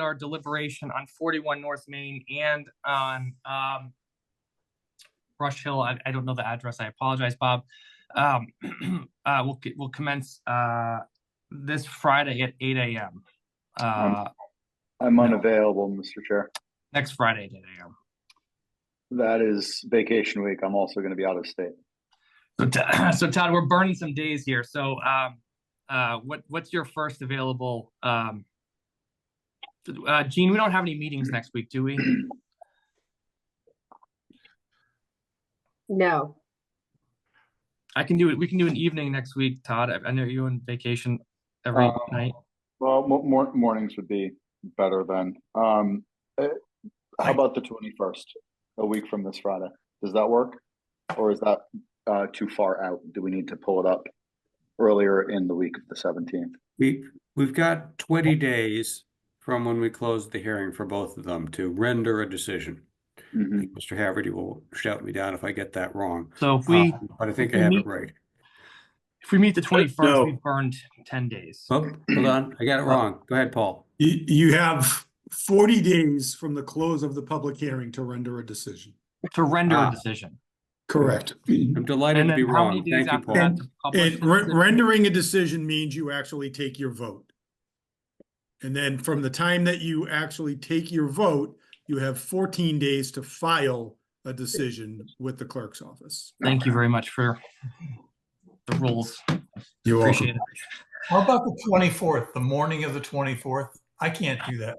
our deliberation on forty-one North Main and on, um, Brush Hill. I, I don't know the address. I apologize, Bob. Um, uh, we'll, c- we'll commence, uh, this Friday at eight AM. Uh, I'm No. unavailable, Mr. Chair. next Friday at eight AM. That is vacation week. I'm also going to be out of state. So, T- so Todd, we're burning some days here. So, um, uh, what, what's your first available, um, uh, Gene, we don't have any meetings next week, do we? No, I can do it. We can do an evening next week, Todd. I, I know you're on vacation every Oh. Um, night. Well, mo- mor- mornings would be better then. Um, eh, how about the 21st, a week from this Friday? Does that work? Or is that uh, too far out? Do we need to pull it up earlier in the week of the 17th? We, we've got twenty days from when we closed the hearing for both of them to render a decision. Mhm. Mr. Haverty will shout me down if I get that wrong, So if uh, we, but I think I we have meet- it right. if we meet the twenty-first, No. we've burned ten days. Oh, hold on, I got it wrong. Go ahead, Paul. You, you have forty days from the close of the public hearing to render a decision. to render a Ah. decision. Correct. I'm And delighted And to be then how many wrong. days Thank you, after Paul. that to publish? re- rendering a decision means you actually take your vote. And then from the time that you actually take your vote, you have fourteen days to file a decision with the clerk's office. Thank you very much for the rules. You're Appreciate it. How about the twenty-fourth, the morning of the twenty-fourth? I can't do that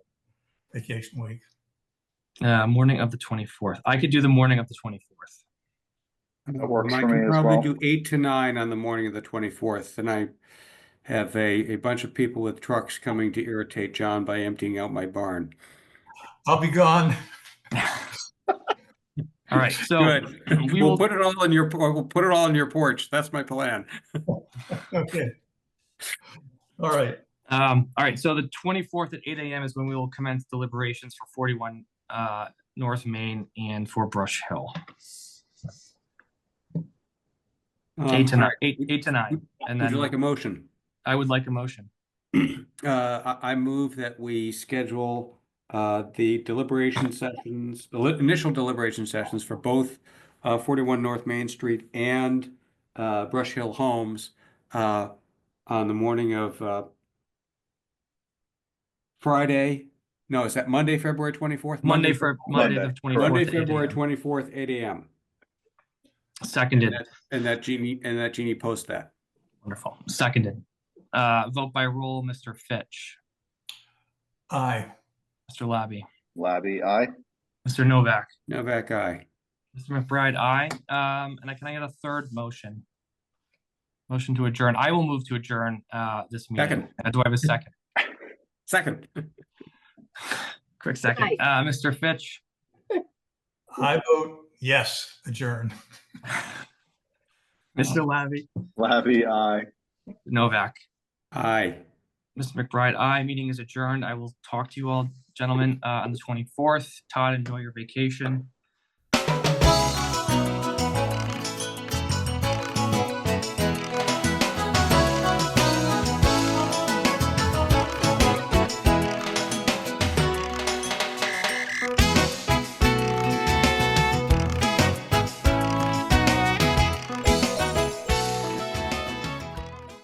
vacation week. Uh, morning of the twenty-fourth. I could do the morning of the twenty-fourth. That works Um, I for can me as probably well. do eight to nine on the morning of the twenty-fourth, and I have a, a bunch of people with trucks coming to irritate John by emptying out my barn. I'll be gone. All right, so Good. we We'll will- put it all in your, por- we'll put it all in your porch. That's my plan. Okay. All right. Um, all right, so the twenty-fourth at eight AM is when we will commence deliberations for forty-one, uh, North Main and for Brush Hill. Um, Eight to nine, all right. Um, eight, eight to nine, and Um, Would you then like a motion? I would like a motion. Uh, I, I move that we schedule, uh, the deliberation sessions, the li- initial deliberation sessions for both, uh, forty-one North Main Street and, uh, Brush Hill Homes, uh, on the morning of, uh, Friday, no, is that Monday, February twenty-fourth? Monday for, Monday the Monday. twenty-fourth. Monday, February twenty-fourth, eight AM. Seconded, And that Jeannie, and that Jeannie post that. wonderful, seconded. Uh, vote by roll, Mr. Fitch, Aye. Mr. Labby, Labby, aye? Mr. Novak, Novak, aye. Mr. McBride, aye. Um, and I can I get a third motion? Motion to adjourn. I will move to adjourn, uh, this meeting. Second. Uh, Do I have a second? Second. Quick second. Uh, Mr. Fitch? I vote yes, adjourn. Mr. Labby? Labby, aye. Novak. Aye. Mr. McBride, aye. Meeting is adjourned. I will talk to you all, gentlemen, uh, on the twenty-fourth. Todd, enjoy your vacation.